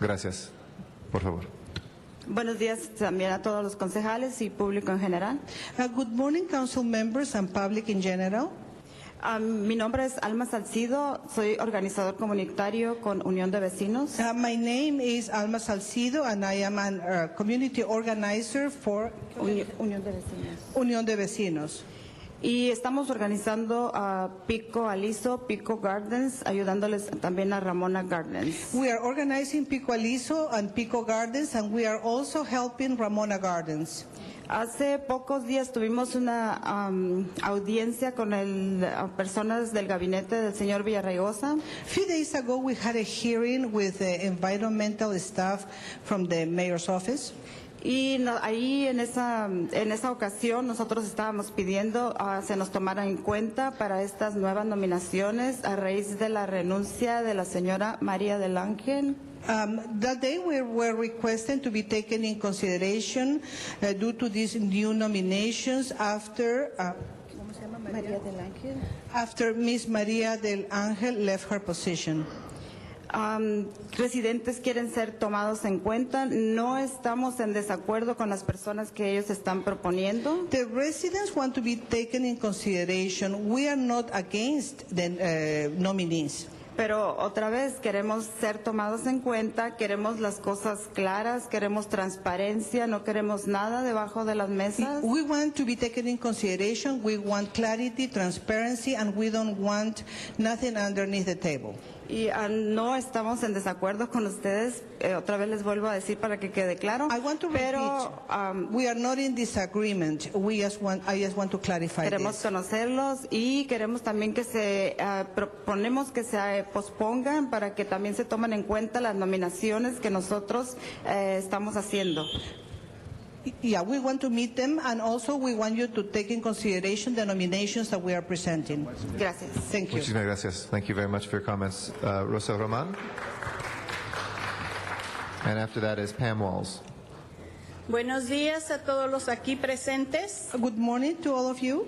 Gracias. Por favor. Buenos días también a todos los concejales y público en general. Uh, Good morning, council members and public in general. Ah, mi nombre es Alma Salcido, soy organizador comunitario con Unión de Vecinos. Uh, My name is Alma Salcido, and I am a community organizer for Uni- Unión de Vecinos. Unión de Vecinos. Y estamos organizando a Pico Aliso, Pico Gardens, ayudándoles también a Ramona Gardens. We are organizing Pico Aliso and Pico Gardens, and we are also helping Ramona Gardens. Hace pocos días tuvimos una am, audiencia con el, ah, personas del gabinete del señor Villarraigosa. A few days ago, we had a hearing with the environmental staff from the mayor's office. Y no- ahí en esa, en esa ocasión nosotros estábamos pidiendo ah, se nos tomaran en cuenta para estas nuevas nominaciones a raíz de la renuncia de la señora María del Ángel. Um, That day, we were requesting to be taken in consideration uh, due to these new nominations after, uh, María del Ángel. after Ms. Maria del Ángel left her position. Am, residentes quieren ser tomados en cuenta. No estamos en desacuerdo con las personas que ellos están proponiendo. The residents want to be taken in consideration. We are not against the uh, nominees. Pero otra vez queremos ser tomados en cuenta, queremos las cosas claras, queremos transparencia, no queremos nada debajo de las mesas. We want to be taken in consideration. We want clarity, transparency, and we don't want nothing underneath the table. Y ah, no estamos en desacuerdo con ustedes. Eh, otra vez les vuelvo a decir para que quede claro. I want to Pero ah, repeat, um, am, we are not in disagreement. We just want, I just want to clarify queremos this. conocerlos y queremos también que se ah, proponemos que se eh, pospongan para que también se tomen en cuenta las nominaciones que nosotros eh, estamos haciendo. Yeah, we want to meet them, and also we want you to take in consideration the nominations that we are presenting. Gracias. Thank you. Muchísimas gracias. Thank you very much for your comments. Uh, Rosa Roman. And after that is Pam Walls. Buenos días a todos los aquí presentes. Good morning to all of you.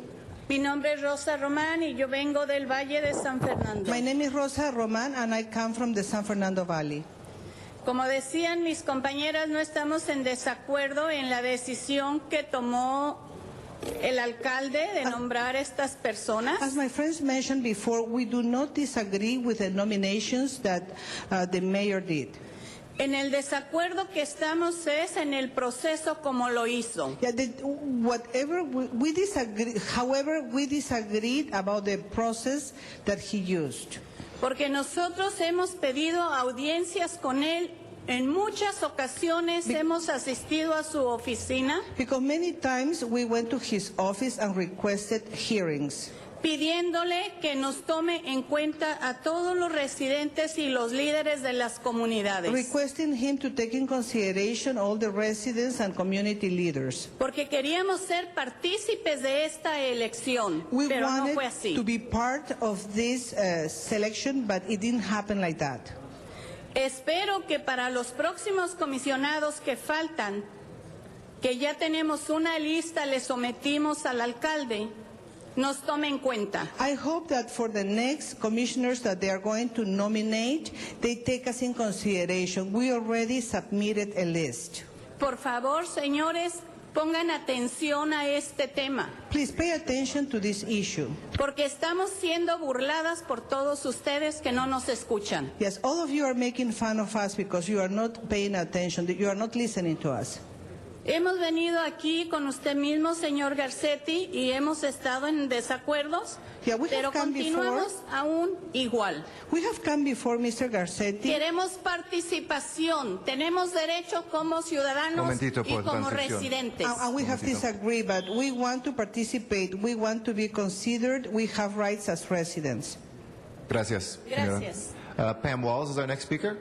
Mi nombre es Rosa Román y yo vengo del Valle de San Fernando. My name is Rosa Roman, and I come from the San Fernando Valley. Como decían mis compañeras, no estamos en desacuerdo en la decisión que tomó el alcalde de nombrar estas As personas. my friends mentioned before, we do not disagree with the nominations that uh, the mayor did. En el desacuerdo que estamos es en el proceso como lo hizo. Yeah, the, whatever we, we disagree, however, we disagreed about the process that he used. Porque nosotros hemos pedido audiencias con él. En muchas ocasiones hemos asistido a su oficina. Because many times we went to his office and requested hearings, pidiéndole que nos tome en cuenta a todos los residentes y los líderes de las comunidades, requesting him to take in consideration all the residents and community leaders. porque queríamos ser partícipes de esta elección, We pero no wanted fue to así. be part of this uh, selection, but it didn't happen like that. Espero que para los próximos comisionados que faltan, que ya tenemos una lista, le sometimos al alcalde, nos tome en cuenta. I hope that for the next commissioners that they are going to nominate, they take us in consideration. We already submitted a list. Por favor, señores, pongan atención a este tema. Please pay attention to this issue. Porque estamos siendo burladas por todos ustedes que no nos escuchan. Yes, all of you are making fun of us because you are not paying attention, that you are not listening to us. Hemos venido aquí con usted mismo, señor Garcetti, y hemos estado en desacuerdos, Yeah, we have pero come continuamos aún igual. We have come before Mr. Garcetti. Queremos participación, tenemos derecho como ciudadanos y Momentito, por como transición. residentes. And and we have disagreed, but we want to participate. We want to be considered. We have rights as residents. Gracias. señora. Gracias. Uh, Pam Walls is our next speaker.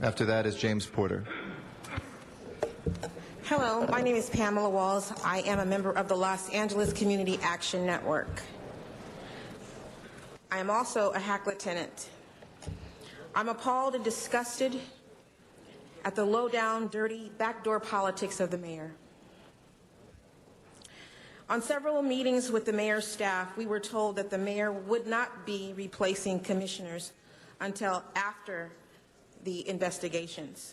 After that is James Porter. Hello, my name is Pamela Walls. I am a member of the Los Angeles Community Action Network. I am also a Hackla tenant. I'm appalled and disgusted at the low-down, dirty, backdoor politics of the mayor. On several meetings with the mayor's staff, we were told that the mayor would not be replacing commissioners until after the investigations.